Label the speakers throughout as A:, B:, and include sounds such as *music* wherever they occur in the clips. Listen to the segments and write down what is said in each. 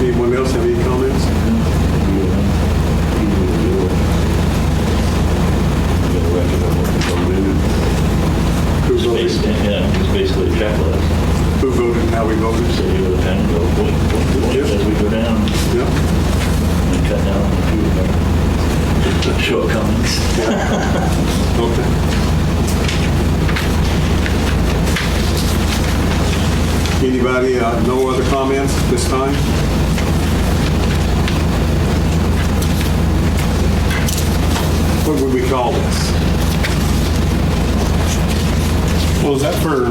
A: Anyone else have any comments? Who
B: Based,
A: voted,
B: yeah, it's basically a checklist.
A: who voted, and how we voted?
B: So you go down and go, boink, boink, boink,
A: Yep.
B: as we go down
A: Yeah,
B: and cut down on a few of our shortcomings.
A: okay. Anybody, uh, no other comments this time? What would we call this?
C: Well, is that for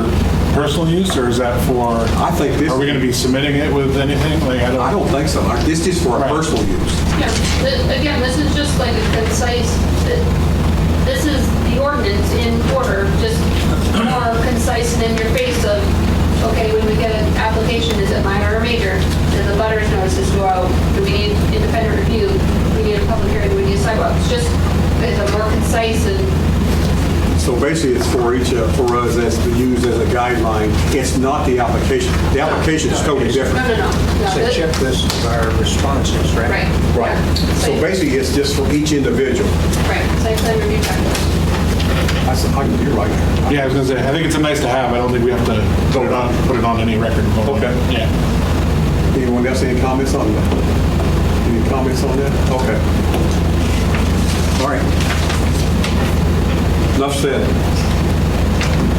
C: personal use or is that for,
A: I think this,
C: are we going to be submitting it with anything? Like, I
A: I
C: don't,
A: don't think so. This is for our
C: Right.
A: personal use.
D: Yeah, th- Again, this is just like a concise, th- this is the ordinance in order, just more concise and in your face of, okay, when we get an application, is it minor or major? Then the butters notices go out, do we need independent review? Do we need a public hearing? Do we need sidewalks? Just, it's a more concise and,
A: So basically, it's for each, uh, for us as to use as a guideline. It's not the application. The application is totally
D: no,
A: different.
D: no, no. no,
E: It's a
D: this-
E: checklist of our responses, right?
D: Right. yeah.
A: So
D: Site-
A: basically, it's just for each individual.
D: Right, site plan review checklist.
A: I said, "Oh, you're right.
C: yeah, I was going to say, I think it's a nice to have. I don't think we have to put it on, put it on any record.
A: Okay.
B: *laughs*
C: Yeah.
A: Anyone else any comments on that? Any comments on that? Okay. All right. Enough said.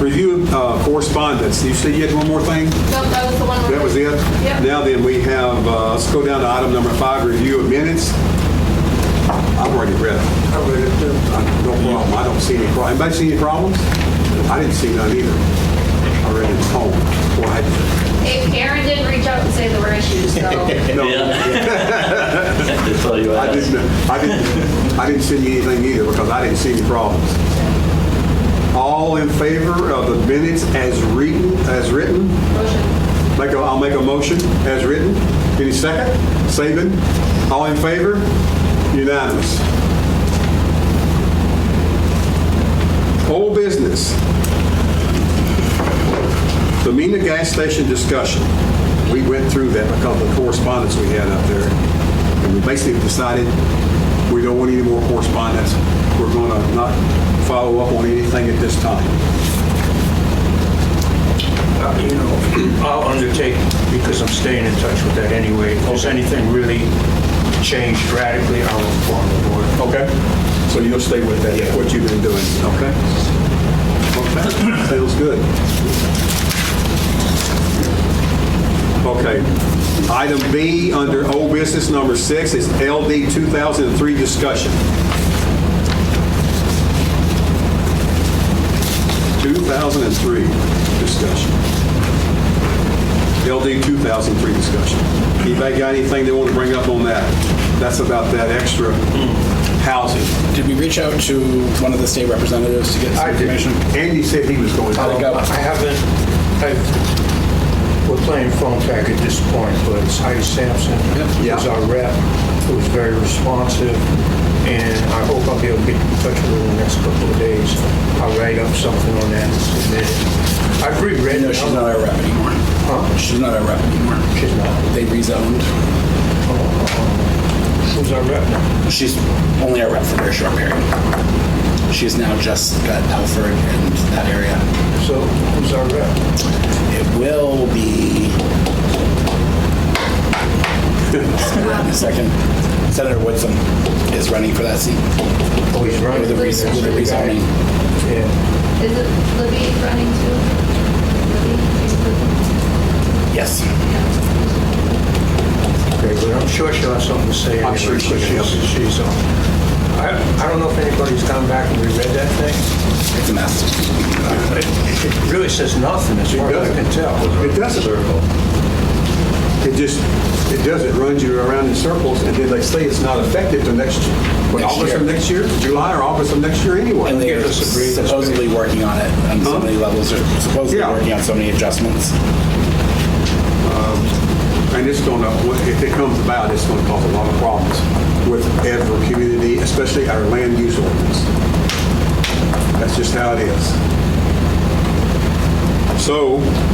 A: Review uh, correspondence. You said you had one more thing?
D: No, that was the one.
A: That was it?
D: Yep.
A: Now then, we have, uh, let's go down to item number five, review of minutes. I've already read it. I read it too. No problem, I don't see any problem. Anybody see any problems? I didn't see none either. I read it at home. Boy, I-
D: Aaron did reach out and say there were issues,
A: *laughs*
D: so.
A: No,
B: Yeah. That's all you
A: I
B: ask.
A: didn't, I didn't, I didn't send you anything either because I didn't see any problems. All in favor of the minutes as written, as written?
D: Motion.
A: Make a, I'll make a motion as written. Any second? Saban? All in favor? Unanimous. Old business. The Mina gas station discussion. We went through that because of the correspondence we had up there. And we basically decided we don't want any more correspondence. We're going to not follow up on anything at this time.
E: Uh, You know, I'll undertake, because I'm staying in touch with that anyway, if there's anything really changed radically, I'll inform the board.
A: Okay. So you'll stay with that,
E: Yeah.
A: what you've been doing, okay? Okay, sounds good. Okay. Item B, under old business number six, is LD 2003 discussion. 2003 discussion. LD 2003 discussion. Anybody got anything they want to bring up on that? That's about that extra housing.
F: Did we reach out to one of the state representatives to get some
E: I did.
F: information?
A: Andy said he was going.
F: How'd it
E: Um,
F: go?
E: I haven't, I've, we're playing phone tag at this point, but it's Heidi Sampson.
A: Yep.
E: Who's our rep, who's very responsive, and I hope I'll be able to get in touch with her in the next couple of days. I'll write up something on that and submit it. I've
F: I
E: rewritten.
F: know she's not our rep anymore. She's not our rep anymore.
E: She's not.
F: They rezoned.
E: Who's our rep now?
F: She's only our rep for a very short period. She's now just got Telford and that area.
E: So, who's our rep?
F: It will be. *laughs* Wait a second. Senator Woodson is running for that seat
E: Oh, he's running.
F: with the rez- with the rezoning.
E: Yeah.
D: Is it Libby running too?
F: Yes.
E: Okay, but I'm sure she'll have something to say.
A: I'm sure she
E: anyway, 'cause
A: will.
E: She's, she's on. I, I don't know if anybody's gone back and reread that thing.
F: It's a mess.
E: It really says nothing, as far as I can tell.
A: It doesn't. It just, it does, it runs you around in circles, and then they say it's not effective till next, what,
F: Next
A: August of
F: year.
A: next year? July or August of next year anyway.
F: And they're supposedly working on it on so many levels, they're supposedly
A: Yeah.
F: working on so many adjustments.
A: And it's gonna, if it comes about, it's gonna cause a lot of problems with every community, especially our land use ordinance. That's just how it is. So,